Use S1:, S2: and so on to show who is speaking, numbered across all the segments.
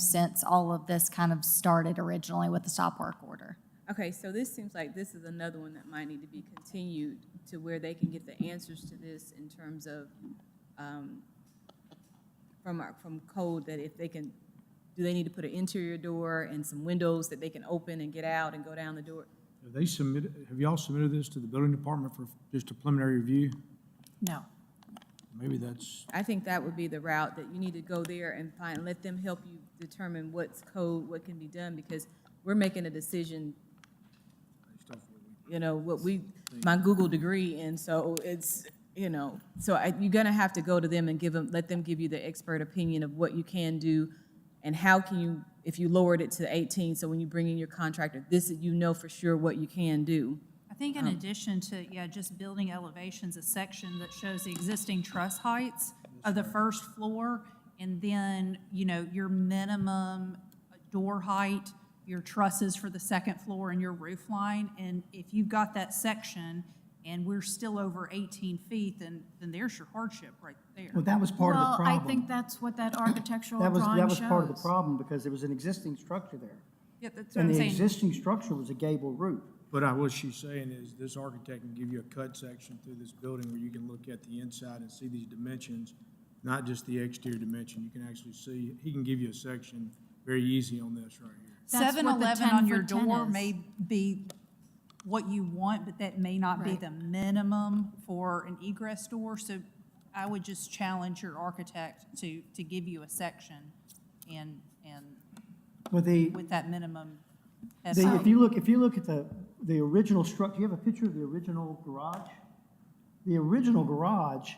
S1: since all of this kind of started originally with the stop work order.
S2: Okay, so this seems like this is another one that might need to be continued to where they can get the answers to this in terms of, um, from our, from code that if they can, do they need to put an interior door and some windows that they can open and get out and go down the door?
S3: Have they submitted, have y'all submitted this to the building department for just a preliminary review?
S1: No.
S3: Maybe that's,
S2: I think that would be the route that you need to go there and find, let them help you determine what's code, what can be done, because we're making a decision, you know, what we, my Google degree, and so it's, you know, so I, you're gonna have to go to them and give them, let them give you the expert opinion of what you can do and how can you, if you lowered it to eighteen, so when you bring in your contractor, this, you know for sure what you can do.
S4: I think in addition to, yeah, just building elevations, a section that shows the existing truss heights of the first floor, and then, you know, your minimum door height, your trusses for the second floor and your roof line, and if you've got that section and we're still over 18 feet, then, then there's your hardship right there.
S5: Well, that was part of the
S6: Well,
S5: problem.
S6: I think that's what that architectural
S5: That was,
S6: drawing
S5: that
S6: shows.
S5: was part of the problem, because there was an existing structure there.
S4: Yeah, that's what
S5: And
S4: I'm
S5: the
S4: saying.
S5: existing structure was a gable roof.
S3: but I, what she's saying is this architect can give you a cut section through this building where you can look at the inside and see these dimensions, not just the exterior dimension. You can actually see, he can give you a section very easy on this right here.
S6: That's what the
S4: 7-Eleven on your
S6: 10
S4: door
S6: is.
S4: may be what you want, but that may not be
S6: Right.
S4: the minimum for an egress door. So I would just challenge your architect to, to give you a section and, and
S5: Well, the,
S4: with that minimum.
S5: the,
S4: estimate.
S5: if you look, if you look at the, the original structure, you have a picture of the original garage? The original garage,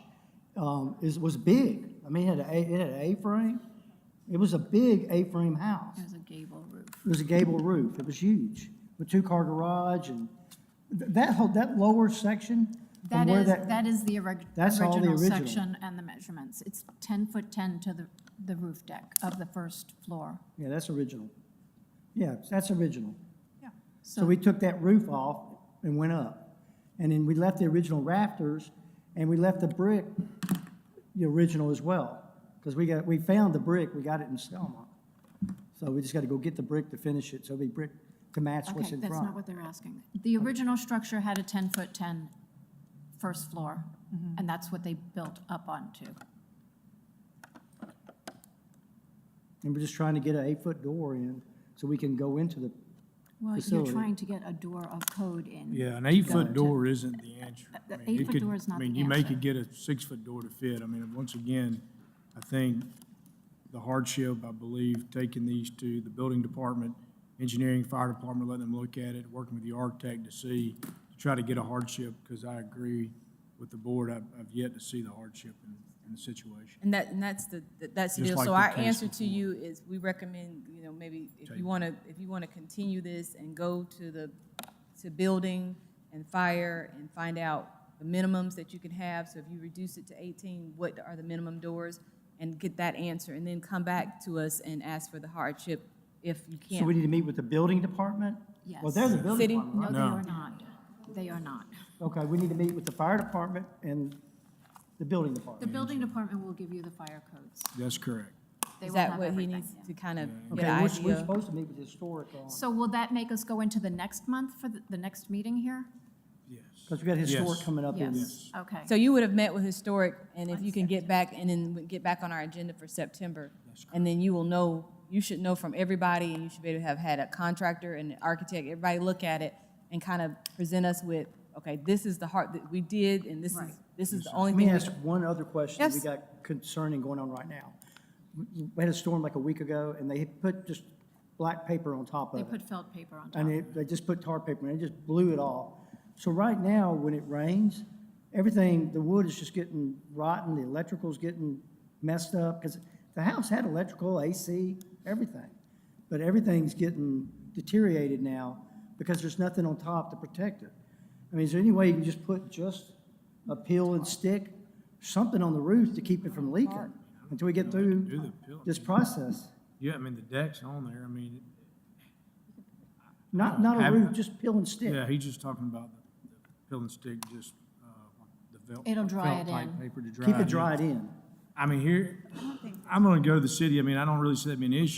S5: um, is, was big. I mean, it had a, it had an A-frame. It was a big A-frame house.
S6: There's a gable roof.
S5: It was a gable roof. It was huge, with two-car garage and th- that whole, that lower section from
S6: That
S5: where
S6: is,
S5: that.
S6: that is the orig-
S5: That's all the
S6: original
S5: original.
S6: section and the measurements. It's 10 foot 10 to the, the roof deck of the first floor.
S5: Yeah, that's original. Yeah, that's original.
S4: Yeah.
S5: So we took that roof off and went up. And then we left the original rafters and we left the brick, the original as well. Because we got, we found the brick, we got it in Selma. So we just got to go get the brick to finish it, so it'll be brick to match what's
S6: Okay,
S5: in
S6: that's not
S5: front.
S6: what they're asking. The original structure had a 10 foot 10 first floor, and that's what they built up onto.
S5: And we're just trying to get an eight-foot door in so we can go into the,
S6: Well, you're
S5: Facility.
S6: trying to get a door of code in.
S3: Yeah, an eight-foot door isn't the answer. I
S6: The
S3: mean, it
S6: eight-foot
S3: could-
S6: door is not
S3: I mean,
S6: the
S3: you may
S6: answer.
S3: could get a six-foot door to fit. I mean, once again, I think the hardship, I believe, taking these to the building department, engineering, fire department, letting them look at it, working with the architect to see, to try to get a hardship, because I agree with the board, I've, I've yet to see the hardship in, in the situation.
S2: And that, and that's the, that- that's the
S3: Just
S2: deal.
S3: like
S2: So
S3: the
S2: our
S3: case
S2: answer to
S3: before.
S2: you is, we recommend, you know, maybe if you want to, if you want to continue this and go to the, to building and fire and find out the minimums that you can have. So if you reduce it to eighteen, what are the minimum doors? And get that answer, and then come back to us and ask for the hardship if you
S5: so we
S2: can't.
S5: need to meet with the building department? Well,
S6: Yes.
S5: they're the building
S2: City-
S5: department,
S6: No,
S5: right?
S6: they
S3: No.
S6: are not. They are not.
S5: Okay, we need to meet with the fire department and the building
S6: The
S5: department.
S6: building department will give you the fire codes.
S3: That's correct.
S6: They
S2: Is
S6: will
S2: that
S6: have
S2: what he
S6: everything,
S2: needs
S6: yeah.
S2: to kind of
S5: Okay,
S2: get an
S5: we're, we're
S2: idea?
S5: supposed to meet with historic on.
S6: So will that make us go into the next month for the, the next meeting here?
S3: Yes.
S5: Because we got historic
S3: Yes.
S5: coming up in
S6: Yes, okay.
S2: So you would have met with historic, and if you can get back, and then we get back on our agenda for September. And then you will know, you should know from everybody, and you should be able to have had a contractor and an architect, everybody look at it and kind of present us with, okay, this is the heart that we did, and this is, this is the only
S5: Let me
S2: thing. we-
S5: ask one other question that we
S2: Yes.
S5: got concerning going on right now. We we had a storm like a week ago, and they had put just black paper on top
S6: They
S5: of it.
S6: put felt paper on top.
S5: And it, they just put tar paper, and it just blew it off. So right now, when it rains, everything, the wood is just getting rotten, the electrical's getting messed up, because the house had electrical, AC, everything. But everything's getting deteriorated now because there's nothing on top to protect it. I mean, is there any way you can just put just a peel and stick, something on the roof to keep it from leaking until we get
S3: Do
S5: through
S3: the pil-
S5: this process?
S3: Yeah, I mean, the deck's on there. I mean,
S5: Not, not a roof, just peel and stick.
S3: yeah, he's just talking about the the peel and stick, just, uh, the felt.
S6: It'll dry it
S3: felt-type
S6: in.
S3: Paper to dry.
S5: Keep
S3: it
S5: it
S3: in.
S5: dried in.
S3: I mean, here, I'm gonna go to the city, I mean, I don't really see that being an issue.